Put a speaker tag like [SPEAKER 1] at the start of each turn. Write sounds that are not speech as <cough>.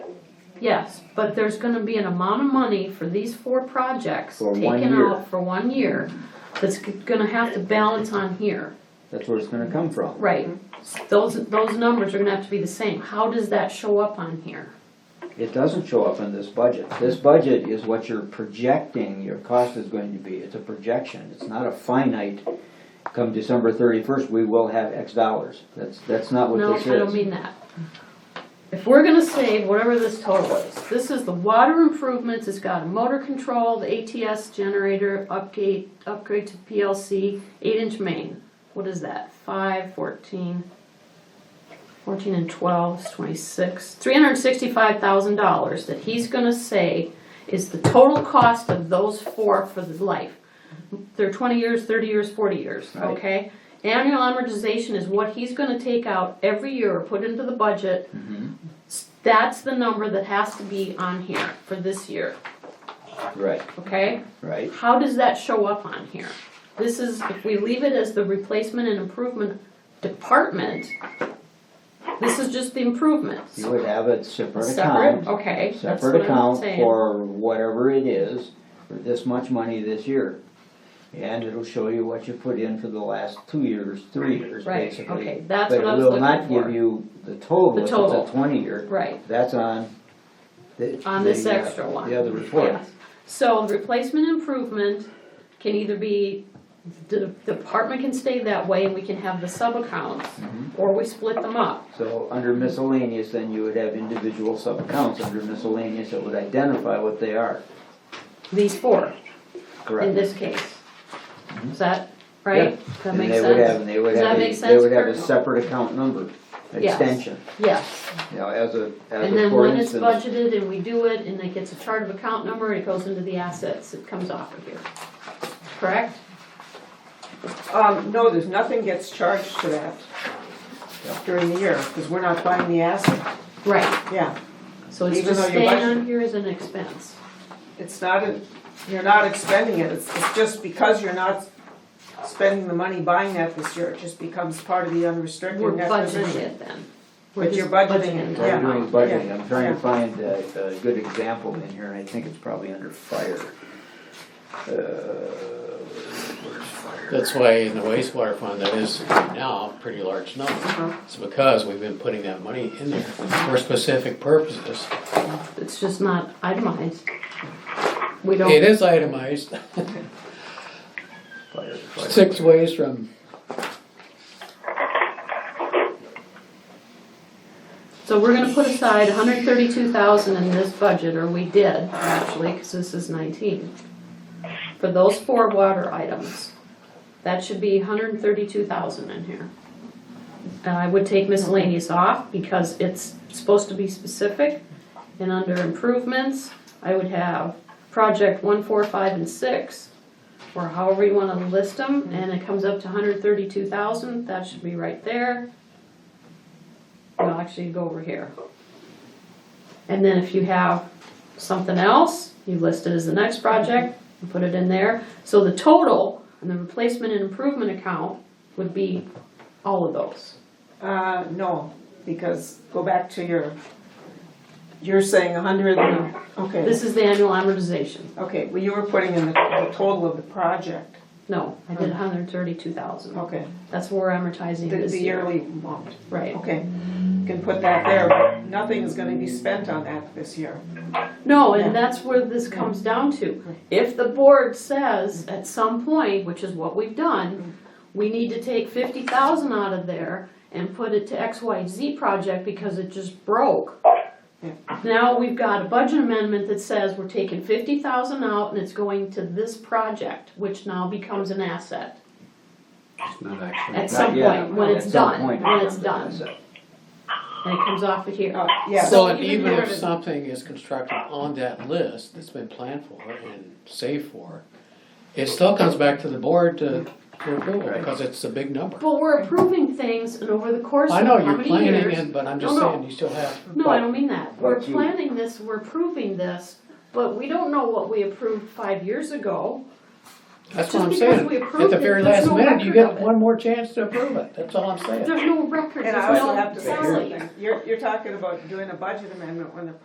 [SPEAKER 1] Yes, but there's gonna be an amount of money for these four projects
[SPEAKER 2] For one
[SPEAKER 1] taken
[SPEAKER 2] year.
[SPEAKER 1] out for one year that's g- gonna have to balance on here.
[SPEAKER 2] That's where it's gonna come from.
[SPEAKER 1] Right, those, those numbers are gonna have to be the same. How does that show up on here?
[SPEAKER 2] It doesn't show up in this budget. This budget is what you're projecting your cost is going to be. It's a projection. It's not a finite, come December thirty-first, we will have X dollars. That's, that's not what
[SPEAKER 1] No,
[SPEAKER 2] this
[SPEAKER 1] I
[SPEAKER 2] is.
[SPEAKER 1] don't mean that. If we're gonna save whatever this total is, this is the water improvements, it's got a motor control, the ATS generator, upgrade, upgrade to PLC, eight inch main. What is that, five, fourteen? Fourteen and twelve is twenty-six, three hundred and sixty-five thousand dollars that he's gonna say is the total cost of those four for the life. They're twenty years, thirty years, forty years,
[SPEAKER 2] Right.
[SPEAKER 1] okay? Annual amortization is what he's gonna take out every year or put into the budget.
[SPEAKER 2] Mhm.
[SPEAKER 1] S- That's the number that has to be on here for this year,
[SPEAKER 2] Right,
[SPEAKER 1] okay?
[SPEAKER 2] right.
[SPEAKER 1] How does that show up on here? This is, if we leave it as the replacement and improvement department, this is just the improvements.
[SPEAKER 2] You would have a separate
[SPEAKER 1] Separate,
[SPEAKER 2] account.
[SPEAKER 1] okay, that's
[SPEAKER 2] separate
[SPEAKER 1] what I'm
[SPEAKER 2] account
[SPEAKER 1] saying.
[SPEAKER 2] for whatever it is, for this much money this year. And it'll show you what you put in for the last two years, three years,
[SPEAKER 1] Right,
[SPEAKER 2] basically.
[SPEAKER 1] okay, that's what I was looking
[SPEAKER 2] But it will not give
[SPEAKER 1] for.
[SPEAKER 2] you the total,
[SPEAKER 1] The
[SPEAKER 2] if
[SPEAKER 1] total.
[SPEAKER 2] it's a twenty-year,
[SPEAKER 1] Right,
[SPEAKER 2] that's on the.
[SPEAKER 1] On this
[SPEAKER 2] the, uh,
[SPEAKER 1] extra one.
[SPEAKER 2] The other report.
[SPEAKER 1] Yes. So replacement improvement can either be, the the department can stay that way and we can have the sub-accounts,
[SPEAKER 2] Mhm.
[SPEAKER 1] or we split them up.
[SPEAKER 2] So under miscellaneous, then you would have individual sub-accounts under miscellaneous that would identify what they are,
[SPEAKER 1] These four, in
[SPEAKER 2] correct?
[SPEAKER 1] this case. Is that right? Does that
[SPEAKER 2] Mm-hmm. And
[SPEAKER 1] make
[SPEAKER 2] they would have,
[SPEAKER 1] sense?
[SPEAKER 2] and they would
[SPEAKER 1] Does that
[SPEAKER 2] have, a-
[SPEAKER 1] make
[SPEAKER 2] they would
[SPEAKER 1] sense,
[SPEAKER 2] have a
[SPEAKER 1] Kirk?
[SPEAKER 2] separate account number,
[SPEAKER 1] Yes.
[SPEAKER 2] extension.
[SPEAKER 1] Yes.
[SPEAKER 2] You know, as a, as
[SPEAKER 1] And
[SPEAKER 2] a
[SPEAKER 1] then
[SPEAKER 2] for
[SPEAKER 1] when it's
[SPEAKER 2] instance,
[SPEAKER 1] budgeted and we do it and it gets a chart of account number, it goes into the assets, it comes off of here. Correct?
[SPEAKER 3] Um, no, there's, nothing gets charged for that
[SPEAKER 2] Yeah.
[SPEAKER 3] during the year, because we're not buying the asset,
[SPEAKER 1] Right.
[SPEAKER 3] yeah.
[SPEAKER 1] So it's
[SPEAKER 3] Even
[SPEAKER 1] just
[SPEAKER 3] though you
[SPEAKER 1] staying
[SPEAKER 3] budgeted.
[SPEAKER 1] on here as an expense.
[SPEAKER 3] It's not, a- you're not expending it, it's, it's just because you're not spending the money buying that this year, it just becomes part of the unrestricted
[SPEAKER 1] We're
[SPEAKER 3] net
[SPEAKER 1] budgeting
[SPEAKER 3] position.
[SPEAKER 1] it then.
[SPEAKER 3] But
[SPEAKER 1] We're just
[SPEAKER 3] you're budgeting it,
[SPEAKER 1] that
[SPEAKER 3] yeah.
[SPEAKER 2] I'm
[SPEAKER 1] amount.
[SPEAKER 2] doing budgeting,
[SPEAKER 3] Yeah.
[SPEAKER 2] I'm trying
[SPEAKER 3] Yeah.
[SPEAKER 2] to find a, a good example in here, and I think it's probably under fire. Uh,
[SPEAKER 4] That's why in the wastewater fund, that is right now a pretty large
[SPEAKER 1] Uh-huh.
[SPEAKER 4] number. It's because we've been putting that money in there for specific purposes.
[SPEAKER 1] It's just not itemized. We don't.
[SPEAKER 4] It is itemized, <laughs>
[SPEAKER 2] fire, fire.
[SPEAKER 4] six ways from,
[SPEAKER 1] So we're gonna put aside hundred and thirty-two thousand in this budget, or we did, actually, cause this is nineteen. For those four water items, that should be hundred and thirty-two thousand in here. And I would take miscellaneous off, because it's supposed to be specific, and under improvements, I would have project one, four, five, and six, or however you wanna list them, and it comes up to hundred and thirty-two thousand, that should be right there. Well, actually, you go over here. And then if you have something else, you list it as the next project, you put it in there. So the total in the replacement and improvement account would be all of those.
[SPEAKER 3] Uh, no, because, go back to your, you're saying a hundred, and- okay,
[SPEAKER 1] This is the annual amortization.
[SPEAKER 3] okay, well, you were putting in the, the total of the project,
[SPEAKER 1] No, I did hundred and thirty-two thousand.
[SPEAKER 3] Oh. okay,
[SPEAKER 1] That's what we're amortizing
[SPEAKER 3] the,
[SPEAKER 1] this
[SPEAKER 3] the
[SPEAKER 1] year.
[SPEAKER 3] yearly amount.
[SPEAKER 1] Right.
[SPEAKER 3] Okay, can put that there, but nothing is gonna be spent on that this year.
[SPEAKER 1] No,
[SPEAKER 3] Yeah.
[SPEAKER 1] and that's where this comes down to. If the board says at some point, which is what we've
[SPEAKER 3] Mm-hmm.
[SPEAKER 1] done, we need to take fifty thousand out of there and put it to X, Y, Z project because it just broke.
[SPEAKER 3] Yeah.
[SPEAKER 1] Now we've got a budget amendment that says we're taking fifty thousand out and it's going to this project, which now becomes an asset.
[SPEAKER 4] not actually.
[SPEAKER 1] At
[SPEAKER 2] Not
[SPEAKER 1] some
[SPEAKER 2] yet.
[SPEAKER 1] point, when it's
[SPEAKER 2] At some
[SPEAKER 1] done,
[SPEAKER 2] point,
[SPEAKER 1] when it's
[SPEAKER 2] it's
[SPEAKER 1] done,
[SPEAKER 2] done.
[SPEAKER 1] and it comes off of here.
[SPEAKER 3] Uh, yeah,
[SPEAKER 1] So
[SPEAKER 4] So and
[SPEAKER 1] even
[SPEAKER 4] even if
[SPEAKER 1] there-
[SPEAKER 4] something is constructed on that list that's been planned for and saved for, it still comes back to the board to to approve it, because it's a big number.
[SPEAKER 1] But we're approving things and over the course of
[SPEAKER 4] I
[SPEAKER 1] how many
[SPEAKER 4] know
[SPEAKER 1] years.
[SPEAKER 4] you're planning it, but I'm just
[SPEAKER 1] No, no.
[SPEAKER 4] saying, you still have,
[SPEAKER 1] No, I don't mean that. We're
[SPEAKER 2] but you-
[SPEAKER 1] planning this, we're proving this, but we don't know what we approved five years ago.
[SPEAKER 4] that's
[SPEAKER 1] Just
[SPEAKER 4] what I'm
[SPEAKER 1] because
[SPEAKER 4] saying.
[SPEAKER 1] we
[SPEAKER 4] At
[SPEAKER 1] approved
[SPEAKER 4] the
[SPEAKER 1] it,
[SPEAKER 4] very
[SPEAKER 1] there's
[SPEAKER 4] last
[SPEAKER 1] no
[SPEAKER 4] minute, you
[SPEAKER 1] record of
[SPEAKER 4] get
[SPEAKER 1] it.
[SPEAKER 4] one more chance to approve it, that's all I'm saying.
[SPEAKER 1] There's no record,
[SPEAKER 3] and
[SPEAKER 1] there's
[SPEAKER 3] I also
[SPEAKER 1] no
[SPEAKER 3] have to say
[SPEAKER 1] tally.
[SPEAKER 3] something, you're, you're talking about doing a budget amendment when the